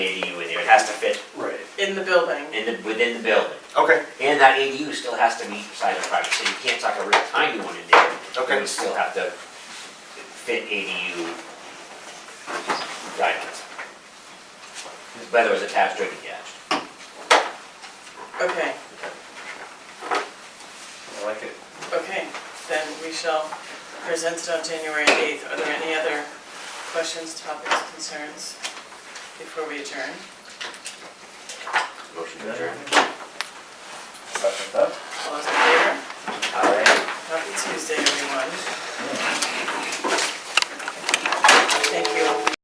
has to fit Right. in the building. in the, within the building. Okay, And that ADU still has to meet side of private, so you can't tuck a real tiny one in there. Okay. It would still have to fit ADU guidelines. Whether it was attached or detached. Okay, I like it. okay, then we shall present it on January 8th. Are there any other questions, topics, concerns before we adjourn? Motion to adjourn.